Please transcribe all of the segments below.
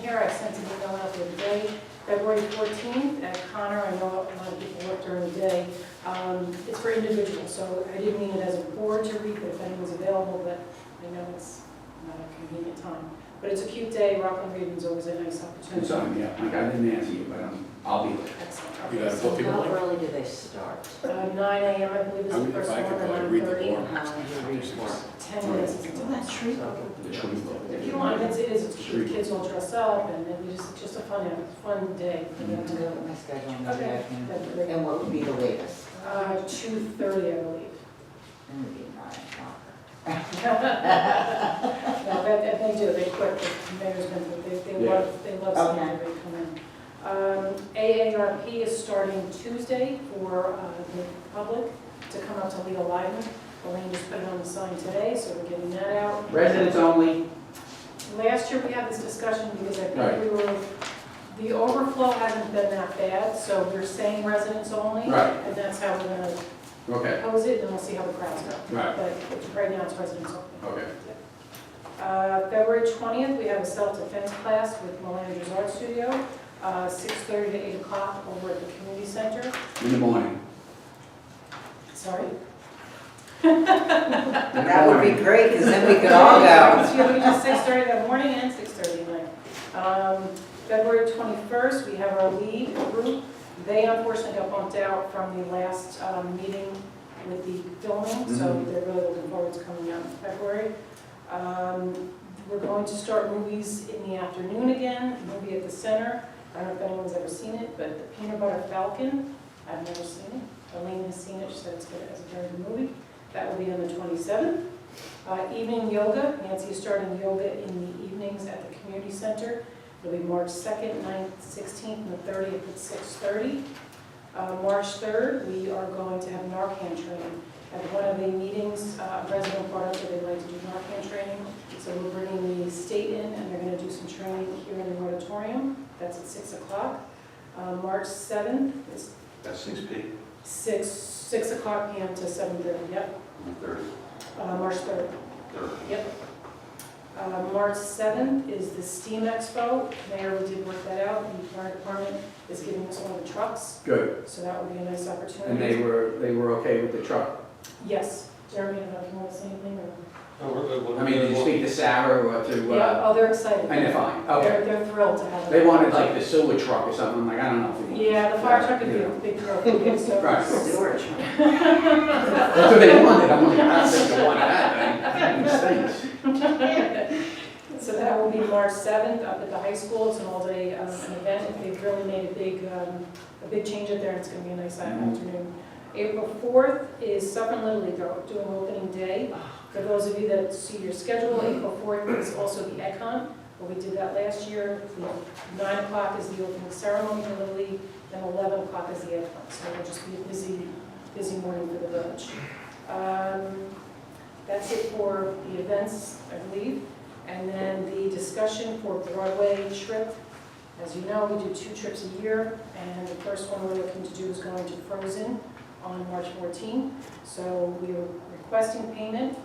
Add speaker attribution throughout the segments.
Speaker 1: here, I sent an email out the other day, February 14th, at Connor, I know a lot of people work during the day. Um, It's for individuals, so I didn't mean it as a board to read, but if anyone's available, but I know it's not a convenient time. But it's a cute day, Rockland Reading's always a nice
Speaker 2: It's
Speaker 1: opportunity.
Speaker 2: on, yeah, like I didn't answer you, but um, I'll be there.
Speaker 1: Excellent.
Speaker 3: You gotta put Uh, people
Speaker 4: How
Speaker 3: like,
Speaker 4: early do they start?
Speaker 1: Uh, 9 AM, I believe is
Speaker 3: I
Speaker 1: the
Speaker 3: mean,
Speaker 1: first
Speaker 3: if I
Speaker 1: one,
Speaker 3: could
Speaker 1: and
Speaker 3: probably read the
Speaker 1: 11:30.
Speaker 3: law.
Speaker 4: How long do you read for?
Speaker 1: 10 minutes, it's it's on that tree.
Speaker 2: The tree boat.
Speaker 1: If you want, it's, it is, it's cute, kids all dress up, and then you just, just a fun, fun day for them
Speaker 4: I'm
Speaker 1: to go.
Speaker 4: gonna
Speaker 3: Mm-hmm.
Speaker 4: look at my schedule and maybe I
Speaker 1: Okay,
Speaker 4: can.
Speaker 1: that'd be great.
Speaker 4: And what would be the latest?
Speaker 1: Uh, two thirty, I believe.
Speaker 4: It would be nine o'clock.
Speaker 1: No, but if they do, they quit, the mayor's been, but they, they love, they love seeing
Speaker 4: Okay.
Speaker 1: everybody come in. Um, AARP is starting Tuesday for, uh, the public to come up to Legal Island. Elaine just put it on the sign today, so we're getting that out.
Speaker 2: Residents only,
Speaker 1: Last year, we had this discussion because I
Speaker 2: Right.
Speaker 1: think we were, the overflow hasn't been that bad, so we're saying residents only.
Speaker 2: Right.
Speaker 1: And that's how we're gonna
Speaker 2: okay,
Speaker 1: pose it, and we'll see how the crowds go.
Speaker 2: right,
Speaker 1: But right now, it's residents only.
Speaker 2: okay.
Speaker 1: Uh, February 20th, we have a self-defense class with Melander's Art Studio, uh, 6:30 to 8 o'clock over at the community center.
Speaker 2: In the morning.
Speaker 1: Sorry.
Speaker 4: That would be great, because then we could all go.
Speaker 1: Excuse me, just 6:30 that morning and 6:30 at night. Um, February 21st, we have our lead group. They unfortunately got bumped out from the last um, meeting with the filming, so
Speaker 2: Mhm.
Speaker 1: they're really looking forward to coming out in February. Um, We're going to start movies in the afternoon again, movie at the center. I don't know if anyone's ever seen it, but The Peanut Butter Falcon, I've never seen it. Elaine has seen it, she said it's good, it's a very good movie. That will be on the 27th. Uh, Evening yoga, Nancy is starting yoga in the evenings at the community center. It'll be March 2nd, 9th, 16th, and the 30th at 6:30. Uh, March 3rd, we are going to have Narcan training. At one of the meetings, uh, a resident brought up that they'd like to do Narcan training, so we're bringing the state in, and they're going to do some training here in the auditorium. That's at 6 o'clock. Uh, March 7th is
Speaker 2: That's six P,
Speaker 1: 6, 6 o'clock PM to 7:30, yep,
Speaker 2: third,
Speaker 1: Uh, March 3rd.
Speaker 2: third.
Speaker 1: Uh, March 7th is the STEAM Expo. Mayor, we did work that out, and the fire department is giving us one of the trucks,
Speaker 2: Good,
Speaker 1: so that would be a nice
Speaker 2: and they
Speaker 1: opportunity.
Speaker 2: were, they were okay with the truck.
Speaker 1: Yes, Jeremy, I don't know if you want to say anything or...
Speaker 2: I mean, did you speak to Sarah or to,
Speaker 1: Yeah,
Speaker 2: uh,
Speaker 1: oh, they're excited.
Speaker 2: and they're fine, okay.
Speaker 1: They're, they're thrilled to have it.
Speaker 2: They wanted like the sewer truck or something, I'm like, I don't know if we want.
Speaker 1: Yeah, the fire truck would
Speaker 2: You
Speaker 1: be a
Speaker 2: know.
Speaker 1: big trophy, so...
Speaker 2: Right.
Speaker 4: Storage.
Speaker 2: That's what they wanted, I'm like, I don't think they wanted that, thing. It stinks.
Speaker 1: So that will be March 7th up at the high school. It's an all-day um, an event. They've really made a big, um, a big change up there. It's going to be a nice
Speaker 2: Mhm.
Speaker 1: afternoon. April 4th is Suffolk Little League. They're doing opening day. For those of you that see your schedule, April 4th is also the Econ. But we did that last year. The 9 o'clock is the opening ceremony for Little League, then 11 o'clock is the Econ. So it'll just be a busy, busy morning for the village. Um, That's it for the events, I believe. And then the discussion for Broadway trip. As you know, we do two trips a year, and the first one we're looking to do is going to Frozen on March 14. So we are requesting payment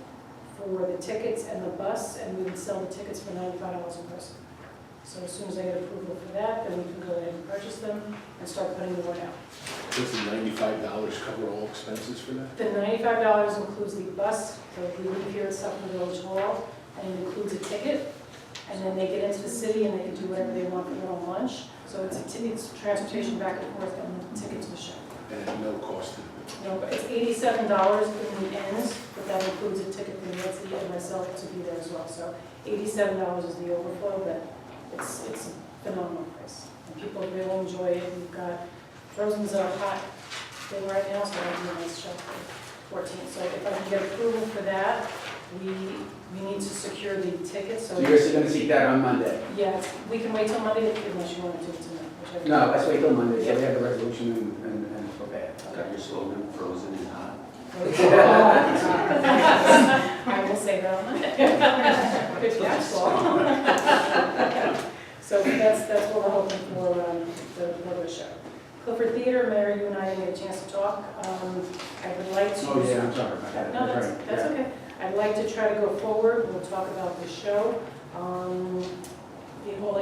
Speaker 1: for the tickets and the bus, and we would sell the tickets for $95 a person. So as soon as I get approval for that, then we can go ahead and purchase them and start putting the word out.
Speaker 3: does the ninety-five dollars cover all expenses for that?
Speaker 1: The $95 includes the bus, so if we leave here at Suffolk Village Hall, and it includes a ticket, and then they get into the city and they can do whatever they want for their own lunch. So it's a ticket, it's transportation back and forth, and the ticket to the show.
Speaker 3: And at no cost to the
Speaker 1: No, but it's eighty-seven dollars when we end, but that includes a ticket for Nancy and myself to be there as well. So eighty-seven dollars is the overflow, but it's, it's a phenomenal price. And people really enjoy it. We've got, Frozen's a hot thing right now, so that'll be a nice show for fourteen. So if I can get approval for that, we, we need to secure the tickets, so.
Speaker 2: So you're gonna see that on Monday?
Speaker 1: Yes, we can wait till Monday unless you want to do it tonight, whichever.
Speaker 2: No, let's wait till Monday, so we have the resolution and, and, and for that.
Speaker 5: Got your slogan, frozen and hot.
Speaker 1: I will say that on Monday. Good catch, Paul. So that's, that's what we're hoping for, um, the, the show. Clifford Theater, Mayor, you and I had a chance to talk. Um, I would like to.
Speaker 2: Oh, yeah, I'm sorry about that.
Speaker 1: No, that's,
Speaker 2: right,
Speaker 1: that's
Speaker 2: yeah.
Speaker 1: okay. I'd like to try to go forward. We'll talk about the show. Um, The whole